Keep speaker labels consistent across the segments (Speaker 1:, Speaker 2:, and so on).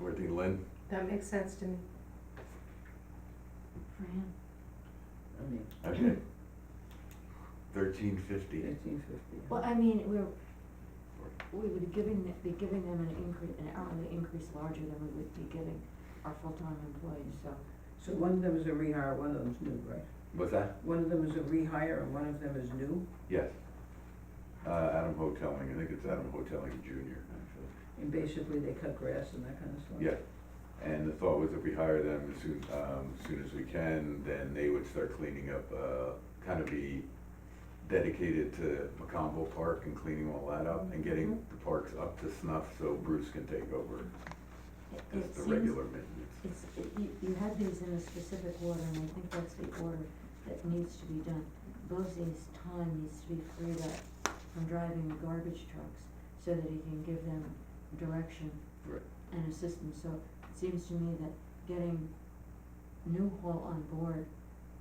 Speaker 1: and Lynn.
Speaker 2: That makes sense to me.
Speaker 3: Fran,
Speaker 4: I mean,
Speaker 1: Okay. Thirteen fifty.
Speaker 4: fifteen fifty.
Speaker 3: well, I mean, we're, we would be giving, th- be giving them an increase, an hourly increase larger than we would be giving our full-time employees, so.
Speaker 4: So one of them is a rehire, one of them's new, right?
Speaker 1: What's that?
Speaker 4: One of them is a rehire and one of them is new,
Speaker 1: Yes. Uh, Adam Hoteling, I think it's Adam Hoteling Junior, actually.
Speaker 4: and basically they cut grass and that kind of stuff.
Speaker 1: Yeah. And the thought was if we hire them as soon, um, as soon as we can, then they would start cleaning up, uh, kind of be dedicated to Macombo Park and cleaning all that up and getting
Speaker 3: Mm-hmm.
Speaker 1: the parks up to snuff so Bruce can take over
Speaker 3: it-
Speaker 1: as
Speaker 3: it
Speaker 1: the
Speaker 3: seems-
Speaker 1: regular maintenance.
Speaker 3: It's, it- you, you had these in a specific order, and I think that's the order that needs to be done. Bosse's time needs to be freed up from driving the garbage trucks, so that he can give them direction
Speaker 1: Right.
Speaker 3: and assistance, so it seems to me that getting Newhall on board,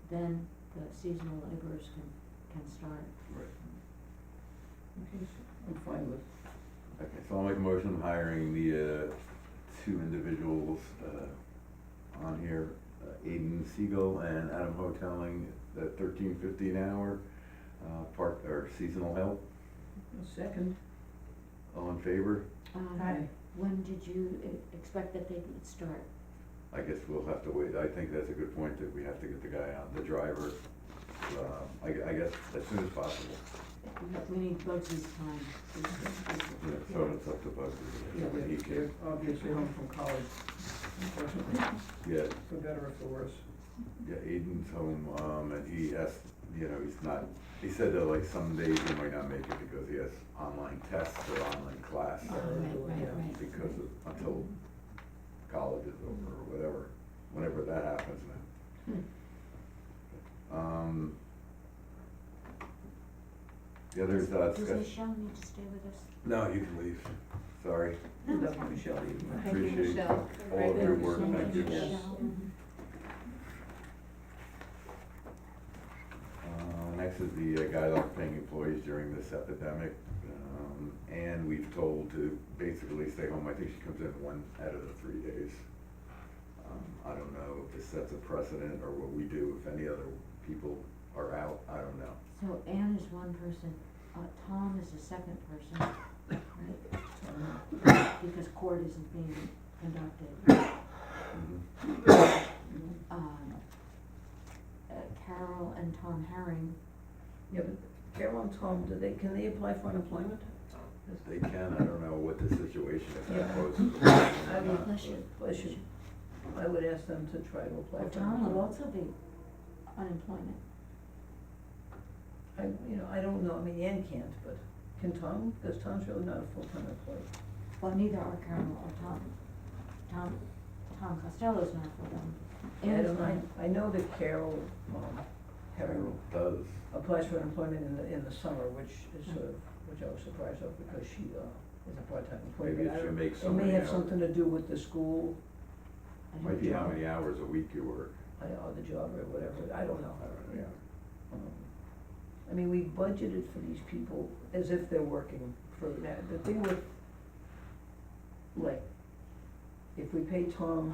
Speaker 3: then the seasonal laborers can, can start.
Speaker 1: Right.
Speaker 4: Okay, so I'm fine with,
Speaker 1: Okay, so I'll make a motion hiring the, uh, two individuals, uh, on here, uh, Aiden Siegel and Adam Hoteling, at thirteen fifty an hour, uh, part, or seasonal help,
Speaker 4: a second.
Speaker 1: all in favor?
Speaker 3: Um, When did you e- expect that they would start?
Speaker 1: I guess we'll have to wait, I think that's a good point, that we have to get the guy on, the driver, uh, I, gu- I guess, as soon as possible,
Speaker 3: We need Bosse's time. is- is-
Speaker 1: Yeah, so it's up to Bugsy,
Speaker 4: Yeah,
Speaker 1: when he
Speaker 4: they're, they're
Speaker 1: can,
Speaker 4: obviously home from college, unfortunately,
Speaker 1: yeah,
Speaker 4: for better or for worse.
Speaker 1: Yeah, Aiden's home, um, and he has, you know, he's not, he said that like some days he might not make it because he has online tests or online class
Speaker 3: Oh, right, right, right.
Speaker 1: because of, until college is over or whatever, whenever that happens now. Um, the others, uh,
Speaker 3: Does
Speaker 1: discuss,
Speaker 3: Michelle need to stay with us?
Speaker 1: no, you can leave, sorry,
Speaker 4: You left Michelle even.
Speaker 1: I
Speaker 2: Thank you,
Speaker 1: appreciate
Speaker 2: Michelle.
Speaker 1: all of your work,
Speaker 4: Thank you
Speaker 1: thank you.
Speaker 4: so
Speaker 3: Michelle.
Speaker 4: much.
Speaker 1: Uh, Next is the uh, guideline paying employees during this epidemic. Um, And we've told to basically stay home. I think she comes in one out of the three days. Um, I don't know if this sets a precedent or what we do, if any other people are out, I don't know.
Speaker 3: So Anne is one person, uh, Tom is the second person, right? Because court isn't being conducted.
Speaker 1: Mhm.
Speaker 3: Um, uh, Carol and Tom Herring,
Speaker 4: Yeah, but Carol and Tom, do they, can they apply for unemployment?
Speaker 1: They can, I don't know what the situation is, I
Speaker 4: Yeah.
Speaker 1: suppose.
Speaker 4: I would-
Speaker 3: Bless you.
Speaker 4: Bless you. I would ask them to try to apply
Speaker 3: well,
Speaker 4: for
Speaker 3: Tom would
Speaker 4: unemployment.
Speaker 3: also be unemployment.
Speaker 4: I, you know, I don't know, I mean, Ann can't, but can Tom, because Tom's really not a full-time employee.
Speaker 3: Well, neither are Carol or Tom. Tom, Tom Costello's not for them.
Speaker 4: I
Speaker 3: Anne's
Speaker 4: don't,
Speaker 3: not,
Speaker 4: I, I know that Carol, um, Harry
Speaker 1: Carol does,
Speaker 4: applies for unemployment in the, in the summer, which is sort of, which I was surprised of, because she, uh, is a part-time employee.
Speaker 1: maybe
Speaker 4: but I
Speaker 1: it should
Speaker 4: don't-
Speaker 1: make
Speaker 4: It
Speaker 1: some,
Speaker 4: may
Speaker 1: you
Speaker 4: have
Speaker 1: know,
Speaker 4: something to do with the school,
Speaker 3: I don't
Speaker 1: might be how
Speaker 3: know.
Speaker 1: many hours a week you work,
Speaker 4: I don't know, the job uh, or whatever, I don't know.
Speaker 1: I don't know, yeah.
Speaker 4: Um, I mean, we budgeted for these people as if they're working for, now, the thing with, like, if we pay Tom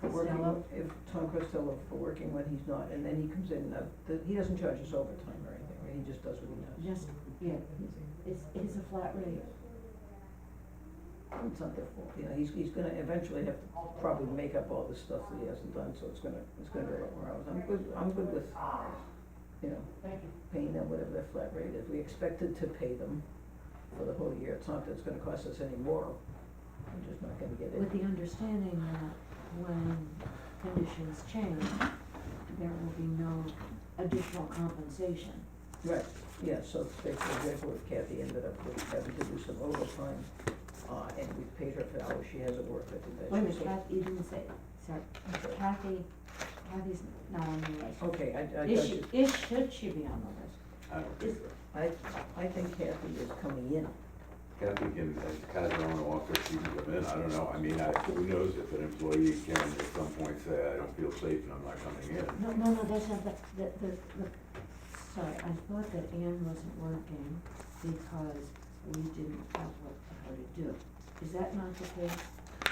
Speaker 4: for working,
Speaker 3: Costello?
Speaker 4: if Tom Costello for working when he's not, and then he comes in, uh, the, he doesn't charge us overtime or anything, right? he just does what he does.
Speaker 3: Just, yeah, it's, it's a flat rate.
Speaker 4: It's not their fault, you know, he's, he's gonna eventually have to probably make up all this stuff that he hasn't done, so it's gonna, it's gonna go up more hours. I'm good, I'm good with, you know,
Speaker 3: Thank you.
Speaker 4: paying them whatever their flat rate is. We expected to pay them for the whole year. It's not that it's gonna cost us any more. We're just not gonna get
Speaker 3: With
Speaker 4: it.
Speaker 3: the understanding that when conditions change, there will be no additional compensation.
Speaker 4: Right, yeah, so say for example, if Kathy ended up with having to do some overtime, uh, and we paid her for hours she hasn't worked, I think that's.
Speaker 3: Wait a minute, Kathy, you didn't say, sorry,
Speaker 4: Okay.
Speaker 3: Kathy, Kathy's not on the list.
Speaker 4: Okay, I, I
Speaker 3: Is
Speaker 4: got
Speaker 3: she,
Speaker 4: you.
Speaker 3: is, should she be on the list?
Speaker 1: I don't think so.
Speaker 4: I, I think Kathy is coming in.
Speaker 1: Kathy can, uh, kind of her own walker, she can come in, I don't know, I mean, I, who knows if an employee can at some point say, I don't feel safe and I'm not coming in.
Speaker 3: No, no, no, that's not, the, the, the, the, sorry, I thought that Anne wasn't working because we didn't have what, how to do. Is that not the case?